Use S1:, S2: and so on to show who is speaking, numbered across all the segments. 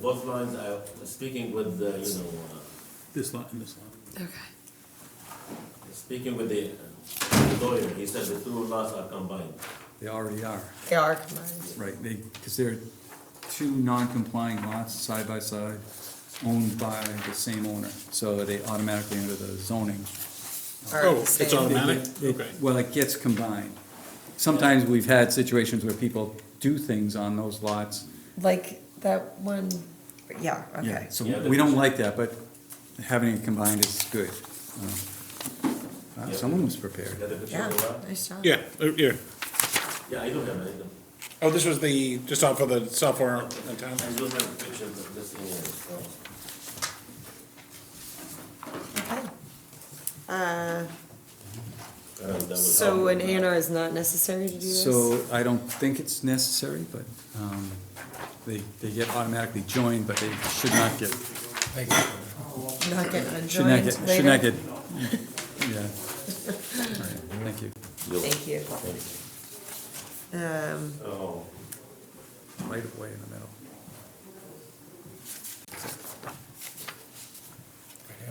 S1: both lines, I was speaking with, the, you know, uh,
S2: This lot and this lot.
S3: Okay.
S1: speaking with the uh, lawyer, he said the two lots are combined.
S2: They already are,
S3: They are combined.
S2: right, they, because they're two non-compliant lots side by side, owned by the same owner, so they automatically under the zoning.
S3: Are
S4: Oh,
S3: the
S4: it's
S3: same.
S4: on- Automatic?
S2: They- they-
S4: Okay.
S2: Well, it gets combined. Sometimes we've had situations where people do things on those lots.
S3: Like that one, yeah, okay.
S2: Yeah, so
S1: Yeah,
S2: we don't like that, but having it combined is good. Um, wow,
S1: Yeah.
S2: Someone was prepared.
S1: You got the picture
S3: Yeah,
S1: of the lot?
S3: nice job.
S4: Yeah, uh, yeah.
S1: Yeah, I do have, it, I do.
S4: Oh, this was the, just off of the software in town.
S1: I do have the picture of this thing here. so.
S3: Okay.
S1: Uh, that will
S3: So
S1: help.
S3: an A and R is not necessary to do this?
S2: So I don't think it's necessary, but um, they, they get automatically joined, but they should not get,
S3: Not getting
S2: should not
S3: adjoined
S2: get,
S3: later?
S2: should not get, yeah. All right, Thank you.
S3: Thank you. Um,
S1: Oh,
S2: Right away in the middle.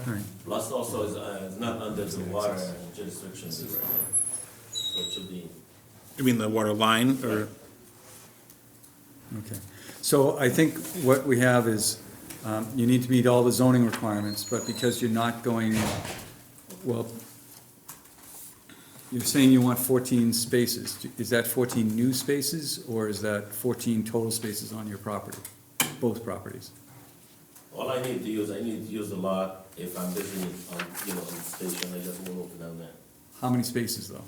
S2: All right,
S1: lots also is, uh, is not under the water jurisdiction. So it should be,
S4: You mean the water line or?
S2: okay. So I think what we have is, um, you need to meet all the zoning requirements, but because you're not going, well, you're saying you want fourteen spaces. Is that fourteen new spaces, or is that fourteen total spaces on your property, both properties?
S1: all I need to use, I need to use the lot if I'm busy on, you know, on the station, I just move down there.
S2: How many spaces, though?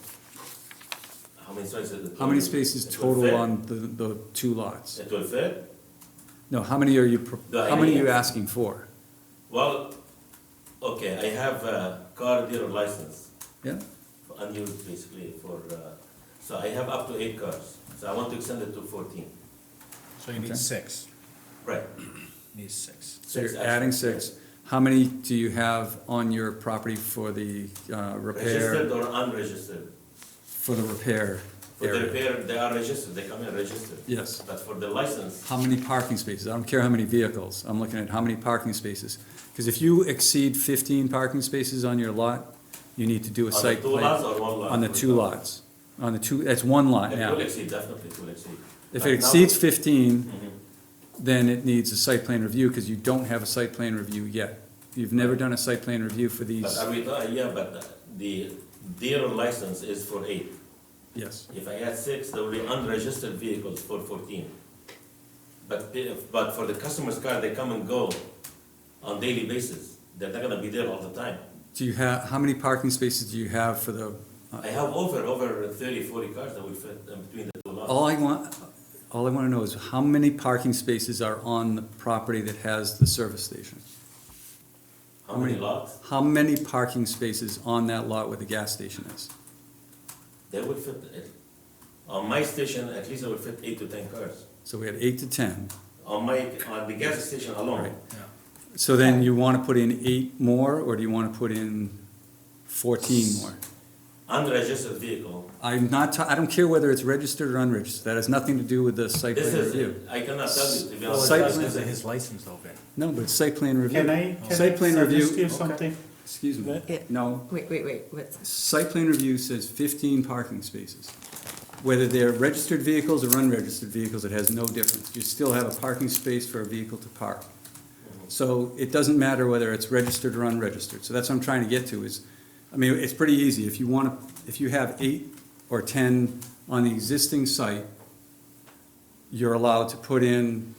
S1: How many spaces? is it?
S2: How many spaces
S1: It will fit.
S2: total on the, the two lots?
S1: It will fit?
S2: No, how many are you, pro-
S1: The
S2: how many are you
S1: idea.
S2: asking for?
S1: Well, okay, I have a car dealer license,
S2: Yeah,
S1: unused basically for, uh, so I have up to eight cars. So I want to extend it to fourteen.
S4: So you
S2: need Okay.
S4: six,
S1: Right.
S4: need six.
S2: so
S1: Six,
S2: you're
S1: actually,
S2: adding six. How many do you have on your property for the uh,
S1: Registered
S2: repair,
S1: or unregistered.
S2: for the repair
S1: For the
S2: area?
S1: repair, they are registered, they come in registered.
S2: Yes.
S1: But for the license,
S2: How many parking spaces? I don't care how many vehicles, I'm looking at how many parking spaces. Because if you exceed fifteen parking spaces on your lot, you need to do a
S1: on the
S2: site
S1: two lots
S2: plan.
S1: or one lot?
S2: On the two lots, on the two, that's one lot
S1: It will
S2: now.
S1: exceed, definitely it will exceed.
S2: If
S1: But
S2: it
S1: now-
S2: exceeds fifteen,
S1: Mhm.
S2: then it needs a site plan review, because you don't have a site plan review yet. You've never done a site plan review for
S1: But
S2: these,
S1: I mean, uh, yeah, but the dealer license is for eight.
S2: yes.
S1: If I add six, there will be unregistered vehicles for fourteen. But if, but for the customer's car, they come and go on daily basis. They're not gonna be there all the time.
S2: Do you have, how many parking spaces do you have for the, uh,
S1: I have over, over thirty, forty cars that will fit in between the two lots.
S2: all I want, all I wanna know is how many parking spaces are on the property that has the service station?
S1: How many lots?
S2: How many parking spaces on that lot where the gas station is?
S1: They will fit, it. on my station, at least I will fit eight to ten cars.
S2: So we had eight to ten.
S1: On my, on the gas station alone,
S2: Right. So then you wanna put in eight more, or do you wanna put in fourteen more?
S1: unregistered vehicle,
S2: I'm not, ta- I don't care whether it's registered or unregistered, that has nothing to do with the site
S1: this
S2: plan
S1: is,
S2: review.
S1: I cannot tell you to be honest.
S2: Site plan-
S5: his license open.
S2: No, but it's site plan review.
S5: Can I, can
S2: Site plan
S5: I
S2: review.
S5: suggest you something?
S2: Excuse me,
S3: Yeah.
S2: no,
S3: Wait, wait, wait, what's,
S2: site plan review says fifteen parking spaces. Whether they're registered vehicles or unregistered vehicles, it has no difference, you still have a parking space for a vehicle to park. So it doesn't matter whether it's registered or unregistered, so that's what I'm trying to get to is, I mean, it's pretty easy, if you wanna, if you have eight or ten on the existing site, you're allowed to put in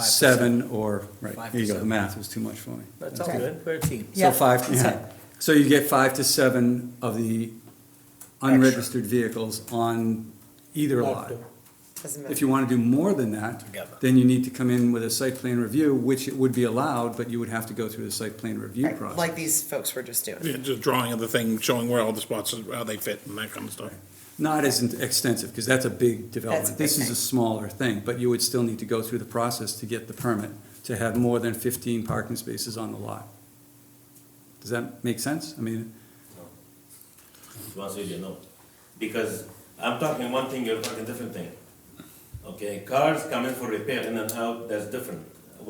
S2: seven or, right, there you go, the math was too much for me.
S5: That's
S3: all Okay.
S5: good, we're a team.
S2: So
S3: Yeah.
S2: five, yeah, so you get five to seven of the unregistered vehicles on either lot.
S3: doesn't
S2: If
S3: matter.
S2: you wanna do more than that,
S5: Together.
S2: then you need to come in with a site plan review, which it would be allowed, but you would have to go through the site plan review
S3: Right, Like
S2: process.
S3: these folks were just doing.
S4: Yeah, just drawing of the thing, showing where all the spots, are, how they fit and that kind of stuff.
S2: Not as in- extensive, cause that's a big development,
S3: big
S2: this is
S3: thing.
S2: a smaller thing, but you would still need to go through the process to get the permit, to have more than fifteen parking spaces on the lot. Does that make sense? I mean,
S1: To answer you, no. Because I'm talking one thing, you're talking different thing. Okay, cars come in for repair in and out, that's different.